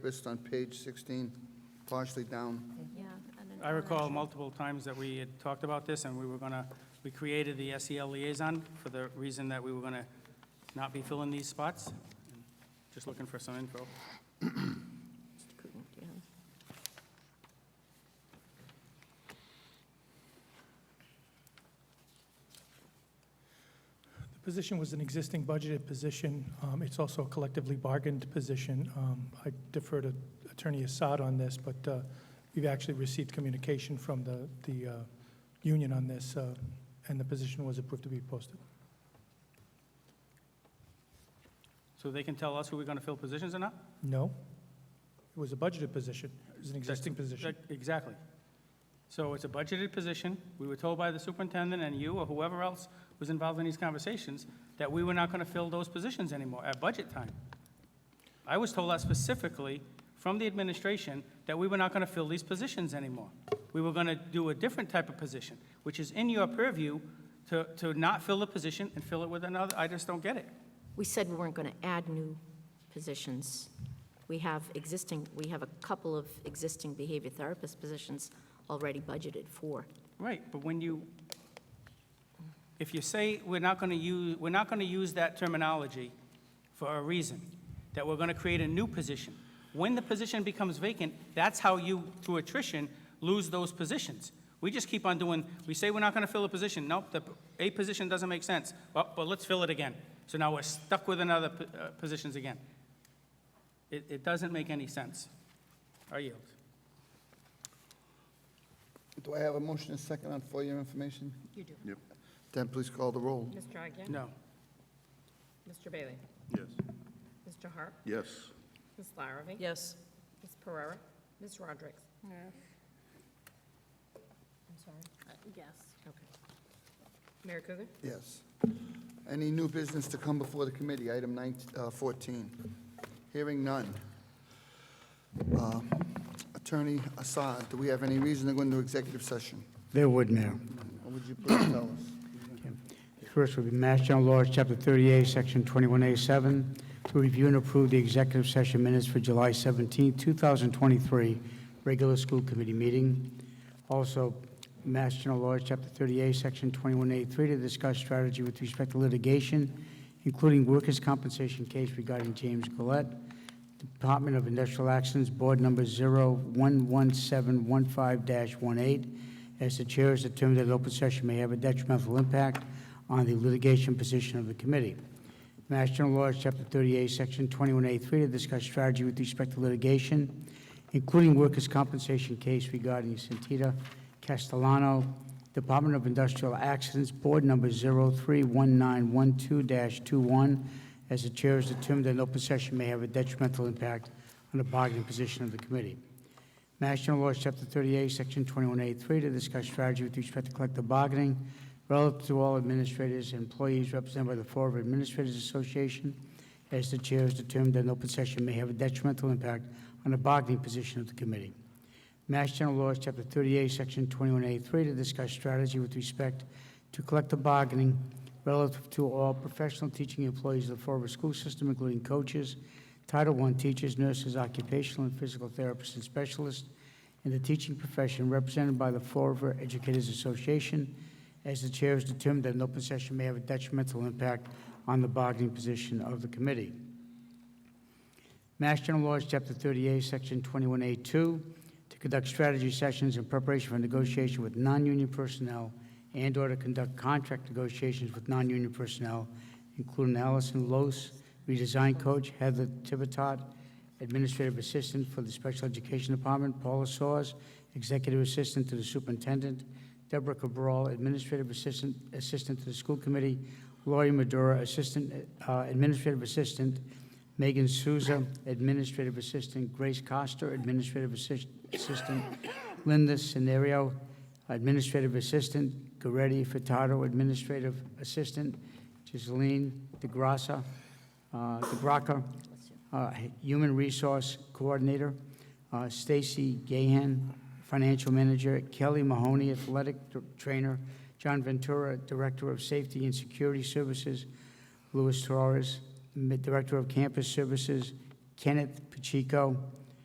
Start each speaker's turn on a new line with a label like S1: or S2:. S1: List on page 16, partially down.
S2: Yeah. and then
S3: I recall
S2: elementary.
S3: multiple times that we had talked about this, and we were going to, we created the SEL liaison for the reason that we were going to not be filling these spots. Just looking for some info.
S2: Just couldn't, yeah.
S4: The position was an existing budgeted position. Um, It's also a collectively bargained position. Um, I defer to Attorney Assad on this, but uh, we've actually received communication from the, the uh, union on this, uh, and the position was approved to be posted.
S3: So they can tell us who we're going to fill positions or not?
S4: No, it was a budgeted position. It was an existing position.
S3: That- Exactly. So it's a budgeted position. We were told by the superintendent and you or whoever else was involved in these conversations that we were not going to fill those positions anymore at budget time. I was told that specifically from the administration that we were not going to fill these positions anymore. We were going to do a different type of position, which is in your purview to, to not fill the position and fill it with another. I just don't get it.
S2: We said we weren't going to add new positions. We have existing, we have a couple of existing behavior therapist positions already budgeted for.
S3: Right, but when you, if you say we're not going to use, we're not going to use that terminology for a reason, that we're going to create a new position, when the position becomes vacant, that's how you, through attrition, lose those positions. We just keep on doing, we say we're not going to fill a position, nope, the, a position doesn't make sense, well, but let's fill it again. So now we're stuck with another, p- uh, positions again. It, it doesn't make any sense. I yield.
S1: Do I have a motion and second on for your information?
S5: You do.
S1: Then please call the roll.
S5: Ms. Agia?
S3: No.
S5: Mr. Bailey?
S6: Yes.
S5: Mr. Harp?
S6: Yes.
S5: Ms. Larrabee?
S7: Yes.
S5: Ms. Pereira? Ms. Rodericks? Yes. I'm sorry?
S7: Uh, Yes.
S5: Okay. Mayor Coogan?
S1: Yes. Any new business to come before the committee? Item 19 uh, 14. Hearing none. Uh, Attorney Assad, do we have any reason to go into executive session?
S8: There would, Mayor.
S1: What would you please tell us?
S8: First would be Mass General Laws, Chapter 38, Section 21A7, to review and approve the executive session minutes for July 17, 2023, regular school committee meeting. Also, Mass General Laws, Chapter 38, Section 21A3, to discuss strategy with respect to litigation, including workers' compensation case regarding James Gillette. Department of Industrial Actions, Board Number 011715-18, as the chair has determined that open session may have a detrimental impact on the litigation position of the committee. Mass General Laws, Chapter 38, Section 21A3, to discuss strategy with respect to litigation, including workers' compensation case regarding Santita Castellano, Department of Industrial Accidents, Board Number 031912-21, as the chair has determined that an open session may have a detrimental impact on the bargaining position of the committee. Mass General Laws, Chapter 38, Section 21A3, to discuss strategy with respect to collective bargaining relative to all administrators and employees represented by the Florida Administrators Association, as the chair has determined that an open session may have a detrimental impact on the bargaining position of the committee. Mass General Laws, Chapter 38, Section 21A3, to discuss strategy with respect to collective bargaining relative to all professional teaching employees of the Fort River School System, including coaches, Title I teachers, nurses, occupational and physical therapists, and specialists in the teaching profession represented by the Fort River Educators Association, as the chair has determined that an open session may have a detrimental impact on the bargaining position of the committee. Mass General Laws, Chapter 38, Section 21A2, to conduct strategy sessions in preparation for negotiation with non-union personnel and/or to conduct contract negotiations with non-union personnel, including Allison Los, redesign coach, Heather Tivitot, administrative assistant for the Special Education Department, Paula Soares, executive assistant to the superintendent, Deborah Cabral, administrative assistant, assistant to the school committee, Lori Madura, assistant, uh, administrative assistant Megan Souza, Administrative Assistant. Grace Coster, Administrative Assist- Assistant. Linda Scenario, Administrative Assistant. Goretti Furtado, Administrative Assistant. Giseline DeGrassa, uh, DeBraca, uh, Human Resource Coordinator. Uh, Stacy Gahan, Financial Manager. Kelly Mahoney, Athletic Dr- Trainer. John Ventura, Director of Safety and Security Services. Luis Torres, Director of Campus Services, Kenneth Pacheco,